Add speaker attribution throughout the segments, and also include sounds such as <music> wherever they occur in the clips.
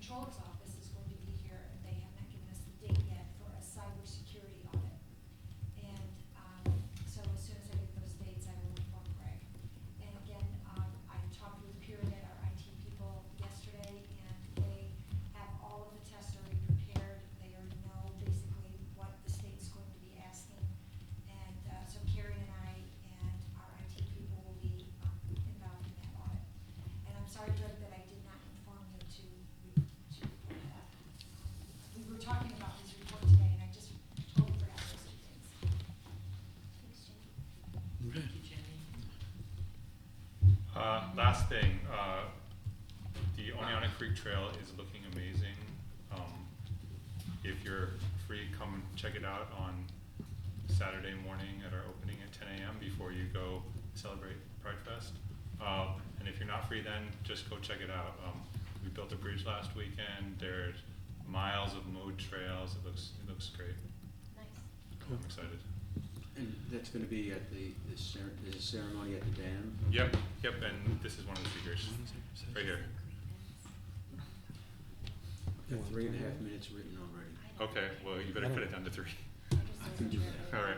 Speaker 1: Controller's Office is going to be here, and they have not given us the date yet for a cybersecurity audit. And, um, so as soon as I get those dates, I will inform Greg. And again, um, I talked with Period, our IT people, yesterday, and they have all of the tests already prepared. They already know basically what the state's going to be asking. And, uh, so Carrie and I and our IT people will be, um, involved in that audit. And I'm sorry, Greg, that I did not inform you to, to report that. We were talking about this report today, and I just totally forgot those two things. Thanks, Jenny.
Speaker 2: Okay.
Speaker 3: Thank you, Jenny.
Speaker 4: Uh, last thing, uh, the Oneonta Creek Trail is looking amazing. Um, if you're free, come check it out on Saturday morning at our opening at ten AM before you go celebrate Pride Fest. Uh, and if you're not free then, just go check it out. Um, we built a bridge last weekend, there's miles of mode trails, it looks, it looks great.
Speaker 1: Nice.
Speaker 2: Cool.
Speaker 4: I'm excited.
Speaker 2: And that's gonna be at the, the cer- there's a ceremony at the dam?
Speaker 4: Yep, yep, and this is one of the figures,
Speaker 5: Mm-hmm.
Speaker 4: right here.
Speaker 2: Got three and a half minutes written already.
Speaker 4: Okay, well, you better put it down to three.
Speaker 2: I can do that.
Speaker 4: All right.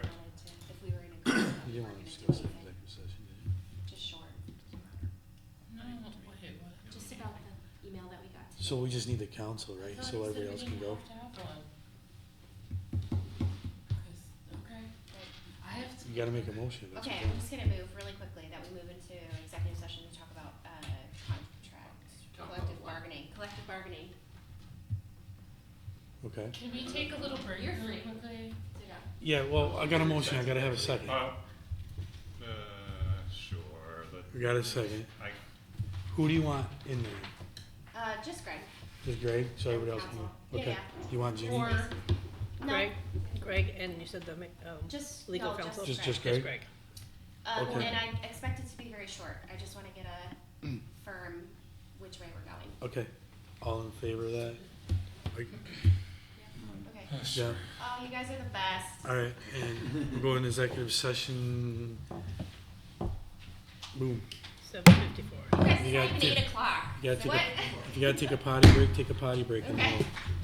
Speaker 6: If we were in a group, we
Speaker 5: You
Speaker 6: were
Speaker 5: didn't want to
Speaker 6: gonna do
Speaker 5: discuss the
Speaker 6: anything,
Speaker 5: executive session, did you?
Speaker 6: just short,
Speaker 3: No, wait, what?
Speaker 6: just about the email that we got today.
Speaker 5: So we just need the council,
Speaker 3: I
Speaker 5: right?
Speaker 3: thought
Speaker 5: So
Speaker 3: you said
Speaker 5: everybody
Speaker 3: we
Speaker 5: else can
Speaker 3: didn't
Speaker 5: go?
Speaker 3: have to have one. 'Cause- okay, but I have to.
Speaker 5: You gotta make a motion. that's
Speaker 6: Okay,
Speaker 5: what
Speaker 6: I'm just gonna move really quickly that we move into executive session to talk about, uh, contracts,
Speaker 2: Talk about
Speaker 6: collective
Speaker 2: what?
Speaker 6: bargaining, collective bargaining.
Speaker 5: I'm- Okay.
Speaker 3: Can we take a little break really quickly?
Speaker 6: So, yeah.
Speaker 5: Yeah, well, I got a motion, I gotta have a second.
Speaker 4: Uh, uh, sure, let,
Speaker 5: We got a second.
Speaker 4: I,
Speaker 5: Who do you want in there?
Speaker 6: Uh, just Greg.
Speaker 5: Just Greg, so everybody else can
Speaker 6: Council.
Speaker 5: go?
Speaker 6: Yeah,
Speaker 5: Okay.
Speaker 6: yeah.
Speaker 5: You want Jenny?
Speaker 3: Or,
Speaker 6: No,
Speaker 7: Greg, Greg, and you said the, ma- um,
Speaker 6: just,
Speaker 7: legal
Speaker 6: no,
Speaker 7: counsel?
Speaker 5: Just,
Speaker 6: just Greg.
Speaker 5: just
Speaker 7: Just
Speaker 5: Greg?
Speaker 7: Greg.
Speaker 6: Um,
Speaker 5: Okay.
Speaker 6: and I expect it to be very short, I just wanna get a
Speaker 5: Mm.
Speaker 6: firm which way we're going.
Speaker 5: Okay. All in favor of that? Like,
Speaker 6: Okay,
Speaker 5: Yeah,
Speaker 6: oh, you guys are the best.
Speaker 5: all right, and we'll go into executive session. Boom.
Speaker 7: Seven fifty-four.
Speaker 6: You guys, it's
Speaker 5: You
Speaker 6: not
Speaker 5: gotta
Speaker 6: even
Speaker 5: take-
Speaker 6: eight o'clock.
Speaker 5: You gotta take
Speaker 6: <laughs> What?
Speaker 5: a, if you gotta take a potty break, take a potty break. and
Speaker 6: Okay.
Speaker 5: we'll-